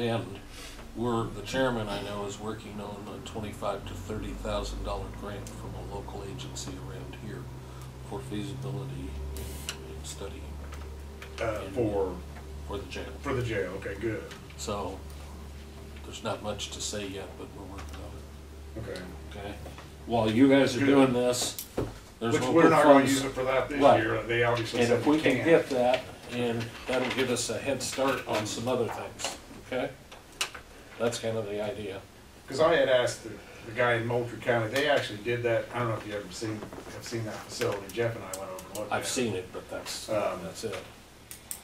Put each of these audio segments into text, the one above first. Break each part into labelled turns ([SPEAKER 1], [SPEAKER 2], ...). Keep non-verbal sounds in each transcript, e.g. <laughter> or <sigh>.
[SPEAKER 1] And we're, the chairman I know is working on a twenty-five to thirty thousand dollar grant from a local agency around here for feasibility and and study
[SPEAKER 2] Uh, for,
[SPEAKER 1] for the jail.
[SPEAKER 2] for the jail, okay, good,
[SPEAKER 1] So there's not much to say yet, but we're working on
[SPEAKER 2] okay.
[SPEAKER 1] it, okay? While you guys are
[SPEAKER 2] Good.
[SPEAKER 1] doing this, there's
[SPEAKER 2] Which
[SPEAKER 1] local funds.
[SPEAKER 2] we're not gonna use it for that this
[SPEAKER 1] Right.
[SPEAKER 2] year, they obviously
[SPEAKER 1] And
[SPEAKER 2] said
[SPEAKER 1] if
[SPEAKER 2] we
[SPEAKER 1] we can
[SPEAKER 2] can't.
[SPEAKER 1] get that, and that'll give us a head start on some other things, okay? That's kind of the idea.
[SPEAKER 2] Cause I had asked the, the guy in Moultrie County, they actually did that, I don't know if you ever seen, have seen that facility, Jeff and I went over and looked at it.
[SPEAKER 1] I've seen it, but that's,
[SPEAKER 2] Um,
[SPEAKER 1] that's it.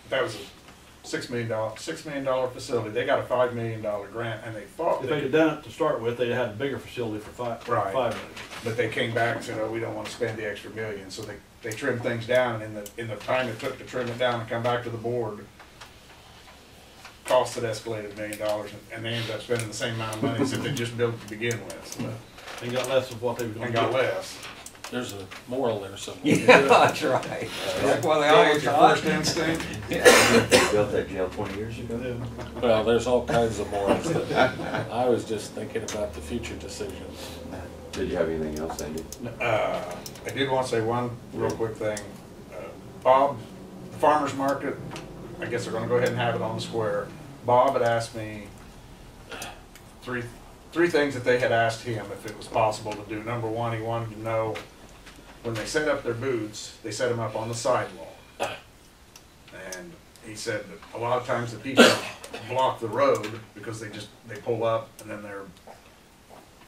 [SPEAKER 2] That was a six million dollar, six million dollar facility, they got a five million dollar grant and they thought they
[SPEAKER 3] If they'd
[SPEAKER 2] could,
[SPEAKER 3] have done it to start with, they'd have had a bigger facility for five, for
[SPEAKER 2] Right.
[SPEAKER 3] five minutes.
[SPEAKER 2] but they came back and said, oh, we don't wanna spend the extra million, so they, they trimmed things down and in the, in the time it took to trim it down and come back to the board. Costs had escalated a million dollars and- and they ended up spending the same amount of money as if they just built to begin with, so.
[SPEAKER 3] And got less of what they were gonna
[SPEAKER 2] and
[SPEAKER 3] get.
[SPEAKER 2] got less.
[SPEAKER 1] There's a moral there somewhere.
[SPEAKER 4] Yeah, that's right. That's why they always
[SPEAKER 2] Go with
[SPEAKER 4] talk.
[SPEAKER 2] your first instinct.
[SPEAKER 5] They built that jail twenty years ago.
[SPEAKER 3] Yeah.
[SPEAKER 1] Well, there's all kinds of morals. but I was just thinking about the future decisions.
[SPEAKER 5] Did you have anything else, Andy?
[SPEAKER 2] Uh, I did want to say one real quick thing. Uh, Bob, the farmer's market, I guess they're gonna go ahead and have it on the square. Bob had asked me three, three things that they had asked him if it was possible to do. Number one, he wanted to know, when they set up their booths, they set them up on the sidewalk. And he said that a lot of times the people block the road because they just, they pull up and then they're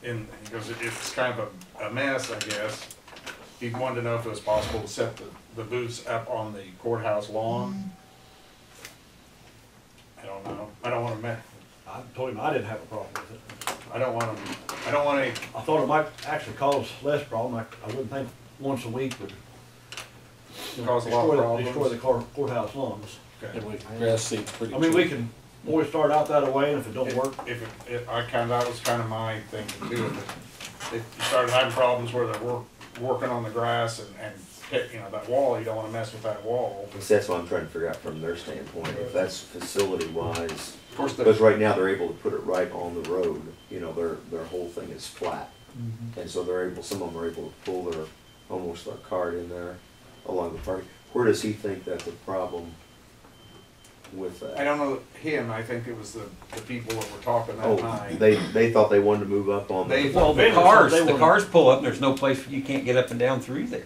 [SPEAKER 2] in, he goes, "It- it's kind of a, a mess, I guess. He wanted to know if it was possible to set the, the booths up on the courthouse lawn. I don't know, I don't wanna ma-
[SPEAKER 3] I told him I didn't have a problem with it.
[SPEAKER 2] I don't wanna, I don't want any,
[SPEAKER 3] I thought it might actually cause less problem. I, I wouldn't think once a week would. you know,
[SPEAKER 2] Cause a lot of
[SPEAKER 3] destroy
[SPEAKER 2] problems.
[SPEAKER 3] the- Destroy the cour- courthouse lawns.
[SPEAKER 2] okay.
[SPEAKER 1] And we grass seeds pretty
[SPEAKER 3] I
[SPEAKER 1] cheap.
[SPEAKER 3] mean, we can always start out that way and if it don't work,
[SPEAKER 2] If, if, if, I kinda, that was kinda my thing to do, if you started having problems where they're work, working on the grass and, and, pick- you know, that wall, you don't wanna mess with that wall.
[SPEAKER 5] Because that's what I'm trying to figure out from their standpoint, if that's facility wise.
[SPEAKER 2] Of course, the-
[SPEAKER 5] Because right now, they're able to put it right on the road, you know, their, their whole thing is flat.
[SPEAKER 3] Mm-hmm.
[SPEAKER 5] And so they're able, some of them are able to pull their, almost their cart in there along the park. Where does he think that's a problem with that?
[SPEAKER 2] I don't know, him, I think it was the, the people that were talking that
[SPEAKER 5] Oh,
[SPEAKER 2] night.
[SPEAKER 5] they, they thought they wanted to move up on
[SPEAKER 2] They-
[SPEAKER 5] the,
[SPEAKER 4] Well, the
[SPEAKER 3] They were-
[SPEAKER 4] cars,
[SPEAKER 3] they
[SPEAKER 4] the
[SPEAKER 3] were-
[SPEAKER 4] cars pull up and there's no place, you can't get up and down through there.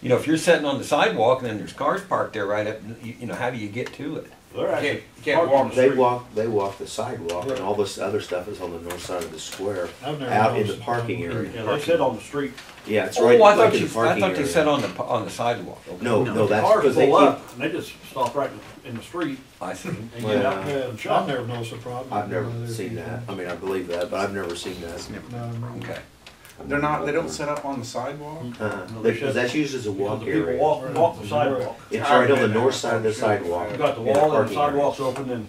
[SPEAKER 4] You know, if you're sitting on the sidewalk and then there's cars parked there right up, you, you know, how do you get to it?
[SPEAKER 3] they're actually.
[SPEAKER 2] can't- can't
[SPEAKER 3] parked on
[SPEAKER 2] walk
[SPEAKER 3] the
[SPEAKER 5] they
[SPEAKER 3] street.
[SPEAKER 5] walk, they walk the sidewalk and
[SPEAKER 3] Right.
[SPEAKER 5] all this other stuff is on the north side of the square,
[SPEAKER 3] I've never
[SPEAKER 5] out in the
[SPEAKER 3] noticed.
[SPEAKER 5] parking area.
[SPEAKER 3] Yeah, they said on the street.
[SPEAKER 5] Yeah, it's right,
[SPEAKER 4] Oh, I
[SPEAKER 5] like
[SPEAKER 4] thought
[SPEAKER 5] in
[SPEAKER 4] you,
[SPEAKER 5] the
[SPEAKER 4] I
[SPEAKER 5] parking
[SPEAKER 4] thought they said
[SPEAKER 5] area.
[SPEAKER 4] on the, p- on the sidewalk. Okay.
[SPEAKER 5] No, no, that's
[SPEAKER 3] Cars
[SPEAKER 5] because they
[SPEAKER 3] pull
[SPEAKER 5] keep,
[SPEAKER 3] up and they just stop right in the- in the street
[SPEAKER 4] I see.
[SPEAKER 3] and get out
[SPEAKER 5] Well,
[SPEAKER 3] there and
[SPEAKER 6] I've
[SPEAKER 3] shop.
[SPEAKER 6] never noticed a problem.
[SPEAKER 5] I've never seen that. I mean, I believe that, but I've never seen that. Uh,
[SPEAKER 6] No, no.
[SPEAKER 4] Okay.
[SPEAKER 2] They're not, they don't set up on the sidewalk?
[SPEAKER 5] Uh,
[SPEAKER 3] No, they
[SPEAKER 5] they- 'cause that's used as a
[SPEAKER 3] Because
[SPEAKER 5] walk
[SPEAKER 3] the people
[SPEAKER 5] area.
[SPEAKER 3] walk, walk the sidewalk.
[SPEAKER 5] It's right on the north side of the sidewalk.
[SPEAKER 3] You got the
[SPEAKER 5] in
[SPEAKER 3] wall and the
[SPEAKER 5] parking area.
[SPEAKER 3] sidewalks open and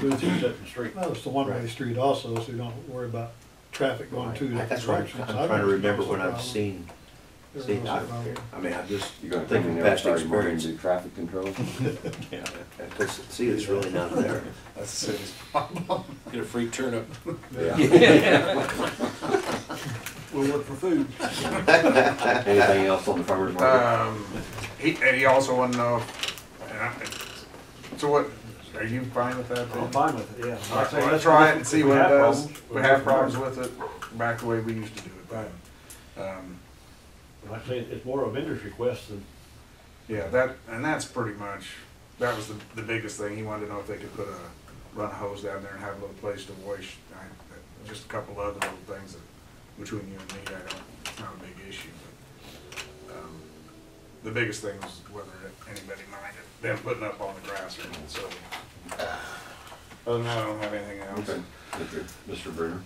[SPEAKER 3] booths are set in the street.
[SPEAKER 6] Well, it's the one-way
[SPEAKER 5] Right.
[SPEAKER 6] street also, so you don't worry about traffic going two
[SPEAKER 5] Right.
[SPEAKER 6] different
[SPEAKER 5] That's right,
[SPEAKER 6] directions.
[SPEAKER 5] I'm
[SPEAKER 6] I've
[SPEAKER 5] trying to
[SPEAKER 6] never
[SPEAKER 5] remember
[SPEAKER 6] noticed a
[SPEAKER 5] when I've
[SPEAKER 6] problem.
[SPEAKER 5] seen,
[SPEAKER 6] Never
[SPEAKER 5] seen, I,
[SPEAKER 6] noticed a problem.
[SPEAKER 5] I mean, I've just
[SPEAKER 7] You're gonna take me
[SPEAKER 5] thinking
[SPEAKER 7] there,
[SPEAKER 5] past
[SPEAKER 7] sorry, we're gonna
[SPEAKER 5] experience.
[SPEAKER 7] do
[SPEAKER 5] <laughs>
[SPEAKER 7] traffic control?
[SPEAKER 5] Because, see, it's really not there.
[SPEAKER 2] That's the
[SPEAKER 3] <laughs>
[SPEAKER 2] city's
[SPEAKER 1] Get a free turnip.
[SPEAKER 3] We'll look for food.
[SPEAKER 7] Anything else on the farmer's market?
[SPEAKER 2] Um, he, and he also wanted to know, if- and I- so what, are you fine with that?
[SPEAKER 3] I'm
[SPEAKER 2] then?
[SPEAKER 3] fine with it, yeah.
[SPEAKER 2] All right,
[SPEAKER 3] Like I say,
[SPEAKER 2] well,
[SPEAKER 3] let's-
[SPEAKER 2] Let's try it and
[SPEAKER 3] if
[SPEAKER 2] see
[SPEAKER 3] we
[SPEAKER 2] what it
[SPEAKER 3] have
[SPEAKER 2] does.
[SPEAKER 3] problems,
[SPEAKER 2] If we have problems with it, back the way we used to do it then. Um,
[SPEAKER 3] Like I say, it's more of a vendor's request than,
[SPEAKER 2] Yeah, that, and that's pretty much, that was the, the biggest thing. He wanted to know if they could put a, run a hose down there and have a little place to wash. I- Just a couple other little things that, between you and me, I don't, it's not a big issue, but, um, the biggest thing was whether anybody minded them putting up on the grass or not, so. Other than that, I don't have anything else.
[SPEAKER 7] Okay, Mr. Bruner?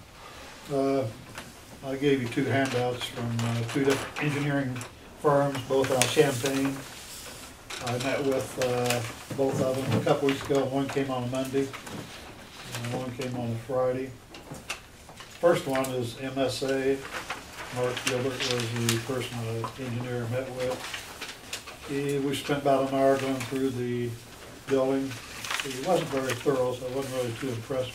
[SPEAKER 6] Uh, I gave you two handouts from uh, two different engineering firms, both out of Champaign. I met with uh, both of them a couple weeks ago. One came on a Monday, and one came on a Friday. First one is MSA. Mark Gilbert was the person the engineer I met with. He- We spent about an hour going through the building. He wasn't very thorough, so I wasn't really too impressed